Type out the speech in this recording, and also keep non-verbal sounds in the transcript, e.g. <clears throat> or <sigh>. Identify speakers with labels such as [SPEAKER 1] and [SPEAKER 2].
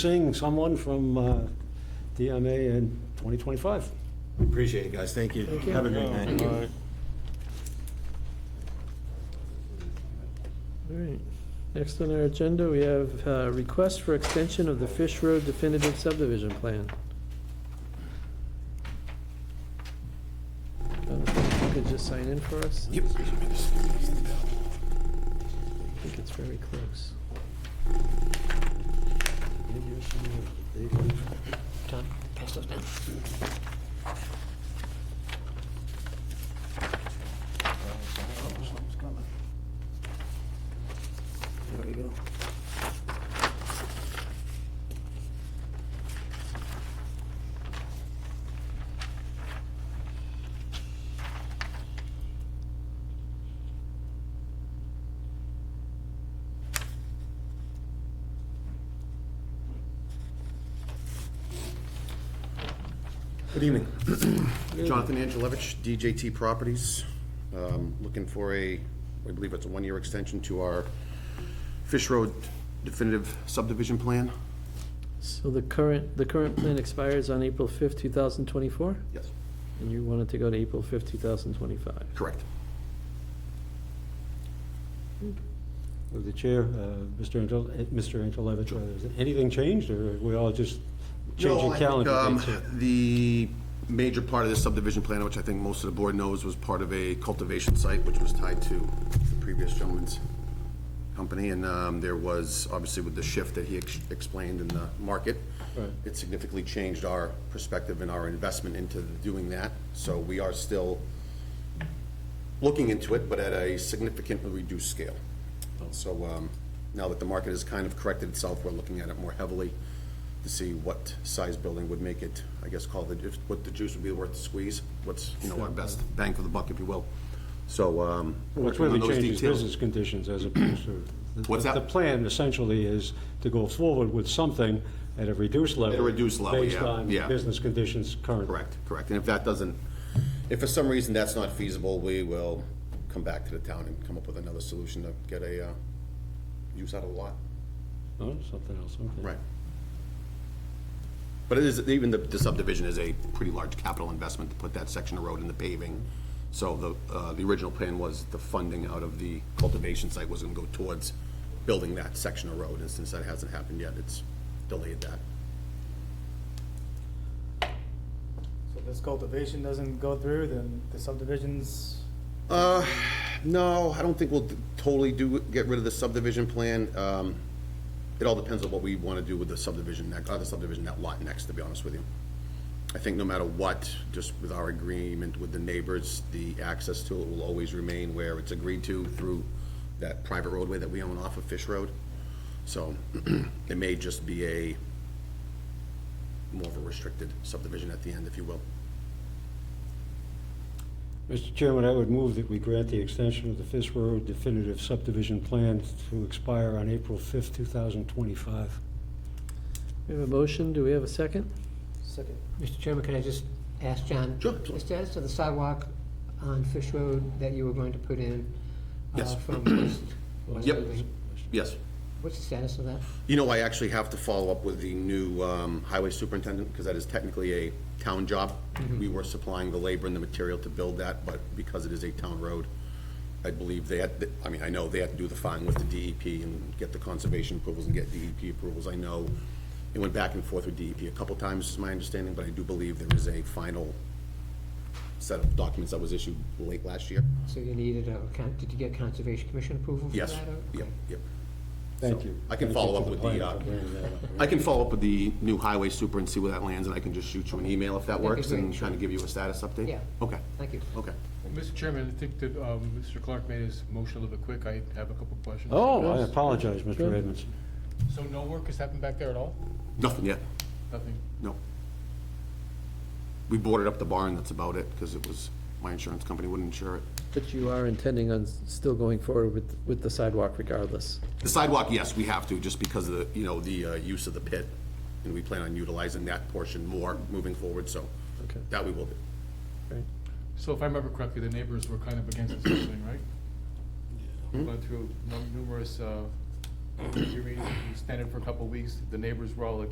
[SPEAKER 1] seeing someone from uh, DMA in 2025.
[SPEAKER 2] Appreciate it, guys. Thank you. Have a great night.
[SPEAKER 3] All right, next on our agenda, we have uh, request for extension of the Fish Road definitive subdivision plan. Um, if You could just sign in for us? Yep. I think it's very close.
[SPEAKER 4] John, pass those down. There you go.
[SPEAKER 2] Good evening. Jonathan Angelevich, DJT Properties. Um, Looking for a, I believe it's a one-year extension to our Fish Road definitive subdivision plan.
[SPEAKER 3] So the current, the current plan expires on April 5th, 2024,
[SPEAKER 2] Yes.
[SPEAKER 3] and you wanted to go to April 5th, 2025.
[SPEAKER 2] Correct.
[SPEAKER 1] With the chair, uh, Mr. Angel, eh, Mr. Angelovich, rather, has anything changed, or are we all just changing
[SPEAKER 2] No, I think,
[SPEAKER 1] calendar
[SPEAKER 2] um,
[SPEAKER 1] dates? here?
[SPEAKER 2] The major part of this subdivision plan, which I think most of the board knows, was part of a cultivation site, which was tied to the previous gentleman's company, and um, there was, obviously with the shift that he ex- explained in the market,
[SPEAKER 1] Right.
[SPEAKER 2] it significantly changed our perspective and our investment into doing that, so we are still looking into it, but at a significantly reduced scale. So um, now that the market has kind of corrected itself, we're looking at it more heavily to see what size building would make it, I guess, called the, if- what the juice would be worth to squeeze, what's, you know, our best bang for the buck, if you will. So. um,
[SPEAKER 1] What's
[SPEAKER 2] working
[SPEAKER 1] really
[SPEAKER 2] on those
[SPEAKER 1] changes
[SPEAKER 2] details.
[SPEAKER 1] business conditions as opposed to... the-
[SPEAKER 2] What's that?
[SPEAKER 1] The plan essentially is to go forward with something at a reduced level.
[SPEAKER 2] reduced level,
[SPEAKER 1] Based
[SPEAKER 2] yeah,
[SPEAKER 1] on
[SPEAKER 2] yeah.
[SPEAKER 1] business conditions currently.
[SPEAKER 2] Correct, correct. And if that doesn't, if for some reason that's not feasible, we will come back to the town and come up with another solution to get a uh, use out of the lot.
[SPEAKER 1] Oh, Something else, okay.
[SPEAKER 2] Right. But it is, even the- the subdivision is a pretty large capital investment to put that section of road in the paving. So the, uh, the original plan was the funding out of the cultivation site was gonna go towards building that section of road, and since that hasn't happened yet, it's delayed that.
[SPEAKER 5] So if this cultivation doesn't go through, then the subdivisions,
[SPEAKER 2] Uh, no, I don't think we'll totally do, get rid of the subdivision plan. Um, It all depends on what we want to do with the subdivision, next- uh, the subdivision, that lot next, to be honest with you. I think no matter what, just with our agreement with the neighbors, the access to it will always remain where it's agreed to through that private roadway that we own off of Fish Road. So <clears throat> it may just be a more of a restricted subdivision at the end, if you will.
[SPEAKER 1] Mr. Chairman, I would move that we grant the extension of the Fish Road definitive subdivision plan to expire on April 5th, 2025.
[SPEAKER 3] We have a motion, do we have a second?
[SPEAKER 5] second,
[SPEAKER 4] Mr. Chairman, can I just ask John?
[SPEAKER 2] Sure, absolutely.
[SPEAKER 4] The status of the sidewalk on Fish Road that you were going to put in? uh,
[SPEAKER 2] Yes.
[SPEAKER 4] From
[SPEAKER 2] <clears throat>
[SPEAKER 4] West, West
[SPEAKER 2] Yep.
[SPEAKER 4] Liberty.
[SPEAKER 2] Yes?
[SPEAKER 4] What's the status of that?
[SPEAKER 2] You know, I actually have to follow up with the new um, highway superintendent, because that is technically a town job. We were supplying the labor and the material to build that, but because it is a town road, I believe they had, I mean, I know they had to do the filing with the DEP and get the conservation approvals and get DEP approvals. I know it went back and forth with DEP a couple times, is my understanding, but I do believe there is a final set of documents that was issued late last year.
[SPEAKER 4] So you needed a, con- did you get Conservation Commission approval for that?
[SPEAKER 2] Yes,
[SPEAKER 4] or-
[SPEAKER 2] yep, yep.
[SPEAKER 1] Thank you.
[SPEAKER 2] I can
[SPEAKER 1] Thank
[SPEAKER 2] follow
[SPEAKER 1] you
[SPEAKER 2] up
[SPEAKER 1] for
[SPEAKER 2] with the,
[SPEAKER 1] plan
[SPEAKER 2] uh,
[SPEAKER 1] for bringing that up.
[SPEAKER 2] I can follow up with the new highway super and see where that lands, and I can just shoot you an email if that
[SPEAKER 4] That'd be
[SPEAKER 2] works, and
[SPEAKER 4] great,
[SPEAKER 2] kind of give you a status update?
[SPEAKER 4] Yeah.
[SPEAKER 2] Okay,
[SPEAKER 4] Thank you.
[SPEAKER 2] okay.
[SPEAKER 6] Mr. Chairman, I think that um, Mr. Clark made his motion a little bit quick. I have a couple of questions.
[SPEAKER 1] Oh, I apologize, Mr.
[SPEAKER 3] Good.
[SPEAKER 1] Edmondson.
[SPEAKER 6] So no work has happened back there at all?
[SPEAKER 2] Nothing yet,
[SPEAKER 6] Nothing?
[SPEAKER 2] no. We boarded up the barn, that's about it, because it was, my insurance company wouldn't insure it.
[SPEAKER 3] But you are intending on s- still going forward with, with the sidewalk regardless?
[SPEAKER 2] The sidewalk, yes, we have to, just because of the, you know, the uh, use of the pit, and we plan on utilizing that portion more moving forward, so
[SPEAKER 3] Okay.
[SPEAKER 2] that we will do.
[SPEAKER 3] Right.
[SPEAKER 6] So if I remember correctly, the neighbors were kind of against this whole thing, right? We Went <coughs> through num- numerous, uh, hearings, we standing for a couple of weeks. The neighbors were all against